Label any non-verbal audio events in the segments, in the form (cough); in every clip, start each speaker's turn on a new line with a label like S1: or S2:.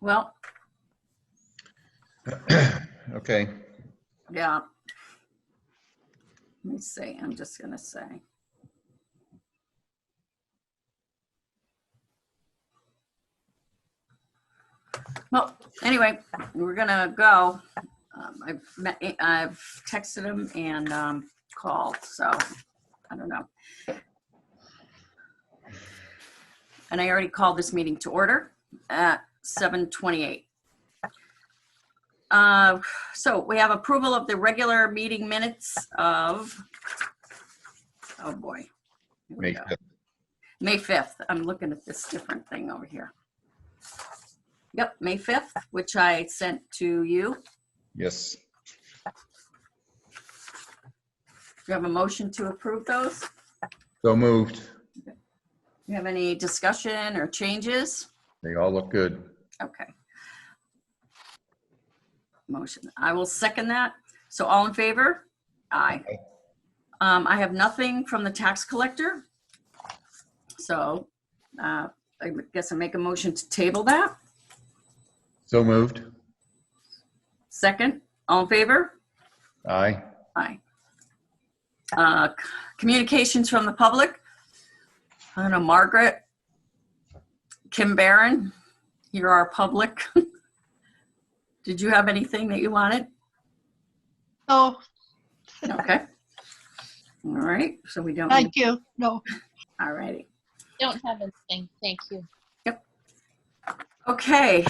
S1: Well,
S2: (coughs) Okay,
S1: yeah. Let me see, I'm just gonna say. Well, anyway, we're gonna go. Um, I've met, I've texted him and, um, called, so I don't know. And I already called this meeting to order at 7:28. Uh, so we have approval of the regular meeting minutes of, oh boy. Here we
S2: May
S1: go.
S2: 5th.
S1: May 5th. I'm looking at this different thing over here. Yep, May 5th, which I sent to you.
S2: Yes,
S1: Do you have a motion to approve those? Do
S2: so moved.
S1: you have any discussion or changes?
S2: They all look good.
S1: Okay. Motion. I will second that. So all in favor? Aye.
S2: Aye.
S1: Um, I have nothing from the tax collector. So, uh, I guess I make a motion to table that.
S2: So moved.
S1: Second, all in favor?
S2: Aye.
S1: Aye. Uh, c- Communications from the public. I don't know, Margaret, Kim Barron, you're our public. (laughs) Did you have anything that you wanted?
S3: Oh,
S1: Okay. All right, so we don't,
S3: thank you. No,
S1: all righty.
S4: Don't have anything, thank you.
S1: Okay,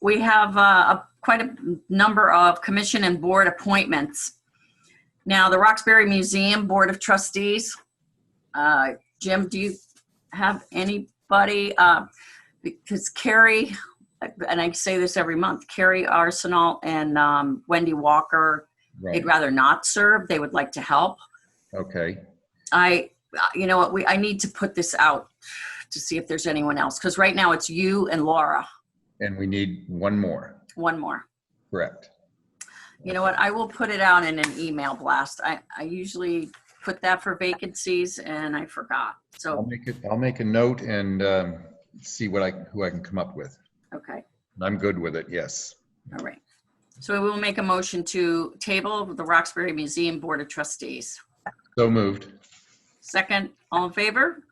S1: we have uh, a- quite a number of commission and board appointments. Now, the Roxbury Museum Board of Trustees. uh, Jim, do you have anybody? uh, Because Carrie, and I say this every month, Carrie Arsenal and um, Wendy Walker,
S2: Right,
S1: they'd rather not serve. They would like to help.
S2: okay.
S1: I, you know what, we, I need to put this out to see if there's anyone else, because right now it's you and Laura,
S2: And we need one more,
S1: one more.
S2: correct?
S1: You know what, I will put it out in an email blast. I, I usually put that for vacancies and I forgot.
S2: I'll
S1: So,
S2: make it, I'll make a note and um, see what I, who I can come up with.
S1: okay,
S2: I'm good with it, yes.
S1: all right. So we will make a motion to table the Roxbury Museum Board of Trustees.
S2: So moved.
S1: Second, all in favor?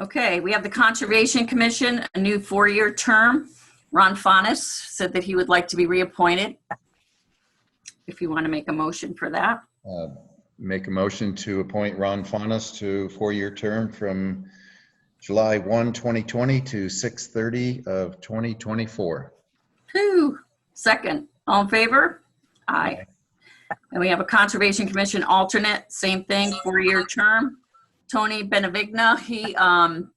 S1: Okay, we have the Conservation Commission, a new four-year term. Ron Fanis said that he would like to be reappointed. If you want to make a motion for that.
S2: Uh, Make a motion to appoint Ron Faunus to four-year term from July 1, 2020 to 6:30 of 2024.
S1: Whew. Second, all in favor? Aye. And we have a Conservation Commission alternate, same thing, four-year term. Tony Benavigna, he, um,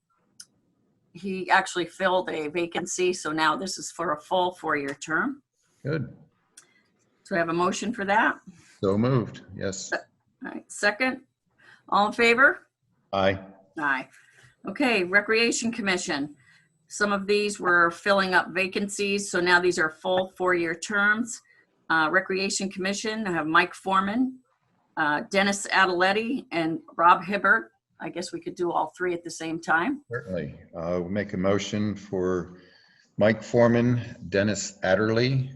S1: he actually filled a vacancy, so now this is for a full four-year term.
S2: Good.
S1: So I have a motion for that.
S2: So moved, yes.
S1: All right, second, all in favor?
S2: Aye.
S1: Aye. Okay, Recreation Commission. Some of these were filling up vacancies, so now these are full four-year terms. Uh, Recreation Commission, I have Mike Foreman, uh, Dennis Adeletti, and Rob Hibbert. I guess we could do all three at the same time.
S2: Certainly. Uh, we'll Make a motion for Mike Foreman, Dennis Adderley,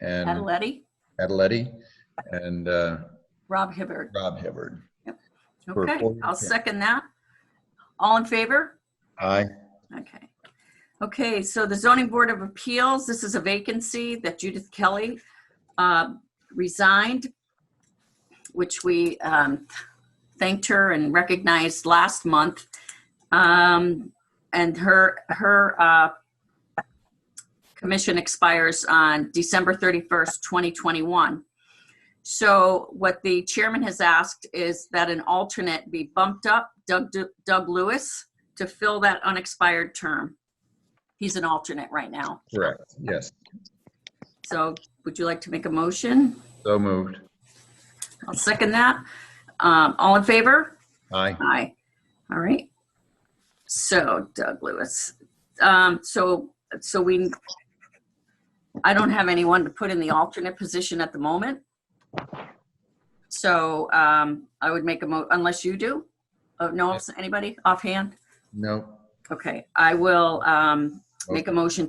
S2: and
S1: Adeletti,
S2: Adeletti, and uh,
S1: Rob Hibbert.
S2: Rob Hibbard. For a
S1: Okay,
S2: four-year
S1: I'll
S2: term.
S1: second that. All in favor?
S2: Aye.
S1: Okay. Okay, so the zoning board of appeals, this is a vacancy that Judith Kelly uh, resigned, which we um, thanked her and recognized last month. Um, And her, her uh, commission expires on December 31st, 2021. So what the chairman has asked is that an alternate be bumped up, Doug Doug Lewis to fill that unexpired term. He's an alternate right now.
S2: Correct, yes.
S1: So would you like to make a motion?
S2: So moved.
S1: I'll second that. Um, all in favor?
S2: Aye.
S1: Aye. All right. So Doug Lewis. Um, so, so we, I don't have anyone to put in the alternate position at the moment. So, um, I would make a mo, unless you do? Oh, no, anybody offhand?
S2: No.
S1: Okay, I will, um, make a motion